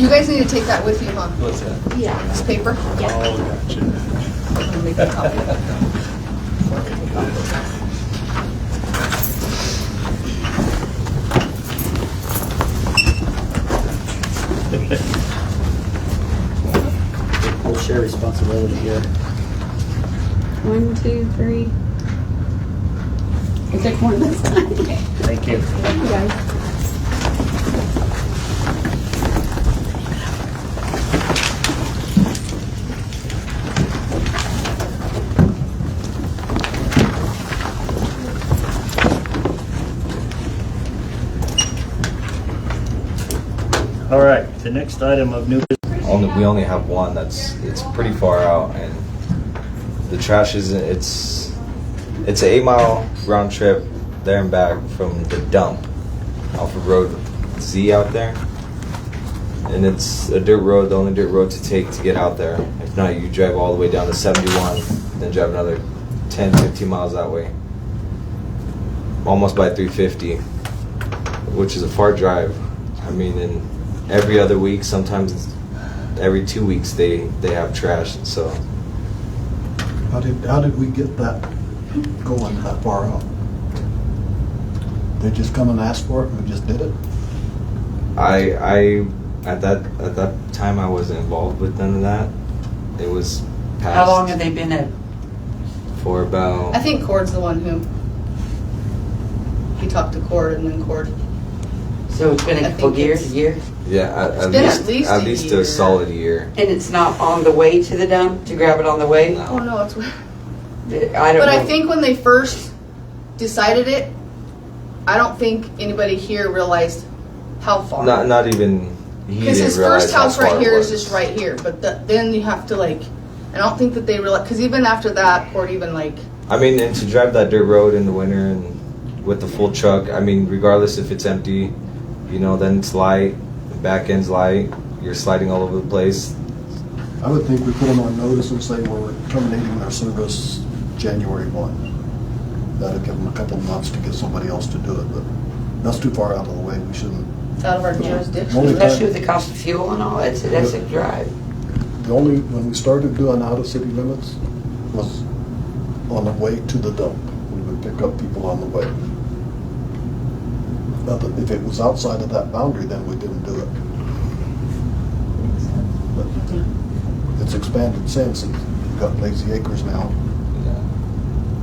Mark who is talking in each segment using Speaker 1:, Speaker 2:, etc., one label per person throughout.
Speaker 1: You guys need to take that with you, huh?
Speaker 2: What's that?
Speaker 3: Yeah.
Speaker 1: This paper?
Speaker 2: Oh, gotcha.
Speaker 1: I'm gonna make a copy.
Speaker 4: We'll share responsibility here.
Speaker 3: One, two, three. I took one this time.
Speaker 4: Thank you.
Speaker 3: Thank you, guys.
Speaker 4: All right, the next item of new,
Speaker 5: Only we only have one. That's it's pretty far out, and the trash is it's it's an eight mile round trip there and back from the dump off of Road Z out there, and it's a dirt road. The only dirt road to take to get out there. If not, you drive all the way down to 71, then drive another 10, 15 miles that way. Almost by 350 which is a far drive. I mean, and every other week, sometimes it's every two weeks, they they have trash. So
Speaker 6: How did, how did we get that going that far out? They just come and ask for it and we just did it?
Speaker 5: I I at that at that time I wasn't involved with none of that. It was past
Speaker 7: How long have they been at?
Speaker 5: for about
Speaker 1: I think Cord's the one who, he talked to Cord and then Cord.
Speaker 7: So it's been
Speaker 1: I
Speaker 7: a couple
Speaker 1: think it's-
Speaker 7: years, year?
Speaker 5: yeah at, at,
Speaker 1: been at
Speaker 5: least,
Speaker 1: least
Speaker 5: at
Speaker 1: a
Speaker 5: least
Speaker 1: year.
Speaker 5: a solid year.
Speaker 7: And it's not on the way to the dump, to grab it on the way?
Speaker 5: No.
Speaker 1: Oh, no, it's weird.
Speaker 7: I don't
Speaker 1: But I
Speaker 7: know.
Speaker 1: think when they first decided it, I don't think anybody here realized how far.
Speaker 5: Not not even he
Speaker 1: Because
Speaker 5: didn't
Speaker 1: his
Speaker 5: realize
Speaker 1: first
Speaker 5: how
Speaker 1: house
Speaker 5: far
Speaker 1: right
Speaker 5: it
Speaker 1: here is
Speaker 5: was.
Speaker 1: just right here, but the, then you have to like, I don't think that they realize, because even after that, Cord even like,
Speaker 5: I mean, and to drive that dirt road in the winter and with the full truck, I mean, regardless if it's empty, you know, then it's light, the back end's light, you're sliding all over the place.
Speaker 6: I would think we put them on notice and say we're terminating their service January one. That'd give them a couple months to get somebody else to do it, but that's too far out of the way. We shouldn't.
Speaker 1: it's out of our
Speaker 7: Yeah.
Speaker 1: jurisdiction.
Speaker 6: Only
Speaker 7: Especially
Speaker 6: time,
Speaker 7: with the cost of fuel and all, that's, that's a drive.
Speaker 6: the only, when we started doing out of city limits was on the way to the dump. We would pick up people on the way. Other- If it was outside of that boundary, then we didn't do it. But It's expanded since. We've got Lazy Acres now.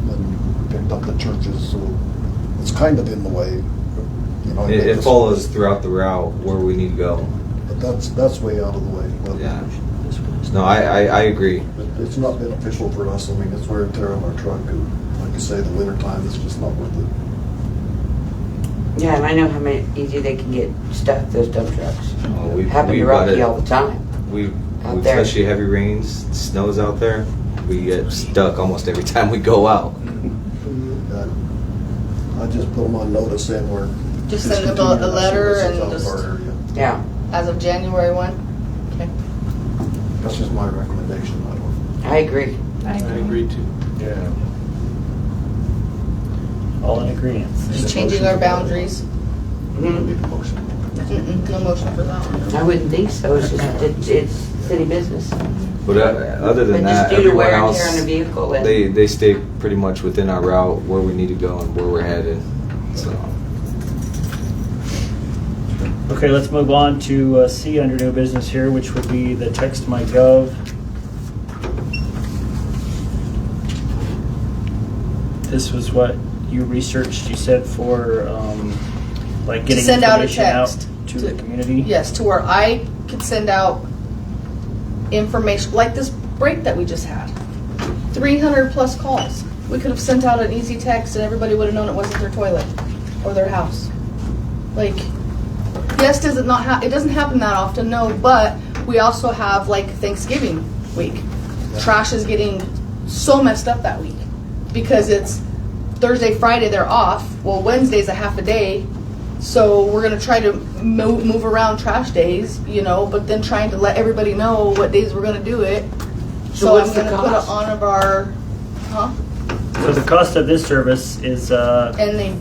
Speaker 6: and picked up the churches, so it's kind of in the way, you know.
Speaker 5: It, it follows throughout the route where we need to go.
Speaker 6: But that's, that's way out of the way. but-
Speaker 5: Yeah. No, I, I, I agree.
Speaker 6: But it's not beneficial for us, I mean, it's wear and tear on our truck, and like you say, the winter time, it's just not worth it.
Speaker 7: Yeah, and I know how many, easy they can get stuck, those dump trucks.
Speaker 5: Uh, we-
Speaker 7: Happen
Speaker 5: we
Speaker 7: to
Speaker 5: bought
Speaker 7: Rocky
Speaker 5: it-
Speaker 7: all the time.
Speaker 5: We,
Speaker 7: Out
Speaker 5: we
Speaker 7: there.
Speaker 5: especially heavy rains, snows out there, we get stuck almost every time we go out.
Speaker 6: I I just put them on notice and we're.
Speaker 1: Just send them a- a
Speaker 6: discontinuing our
Speaker 1: letter
Speaker 6: services
Speaker 1: and
Speaker 6: out of our
Speaker 1: just,
Speaker 6: area.
Speaker 7: Yeah,
Speaker 1: as of January one. Okay.
Speaker 6: That's just my recommendation, I don't.
Speaker 7: I agree.
Speaker 2: I agree too. Yeah.
Speaker 4: all in agreement.
Speaker 1: Just changing our boundaries.
Speaker 7: Mhm.
Speaker 6: Need a motion.
Speaker 1: Mm-mm, No motion for that one.
Speaker 7: I wouldn't think so, it's just, it's, it's city business.
Speaker 5: But uh, other
Speaker 7: But
Speaker 5: than
Speaker 7: just
Speaker 5: that,
Speaker 7: due to
Speaker 5: everyone
Speaker 7: wear and tear
Speaker 5: else,
Speaker 7: on the vehicle and,
Speaker 5: they, they stay pretty much within our route, where we need to go and where we're headed, so.
Speaker 4: Okay, let's move on to uh, C under new business here, which would be the text my gov. This was what you researched, you said for, um, like
Speaker 1: To
Speaker 4: getting
Speaker 1: send out a
Speaker 4: information out
Speaker 1: text.
Speaker 4: to
Speaker 1: To-
Speaker 4: the community?
Speaker 1: Yes, to where I could send out information, like this break that we just had. Three hundred plus calls. We could have sent out an easy text and everybody would have known it wasn't their toilet or their house. Like, yes, does it not ha, it doesn't happen that often, no, but we also have like Thanksgiving week. Trash is getting so messed up that week because it's Thursday, Friday, they're off. Well, Wednesday's a half a day, so we're gonna try to move, move around trash days, you know, but then trying to let everybody know what days we're gonna do it.
Speaker 7: So
Speaker 1: So I'm
Speaker 7: what's the
Speaker 1: gonna put it
Speaker 7: cost?
Speaker 1: on of our, huh?
Speaker 4: So the cost of this service is, uh,
Speaker 1: And they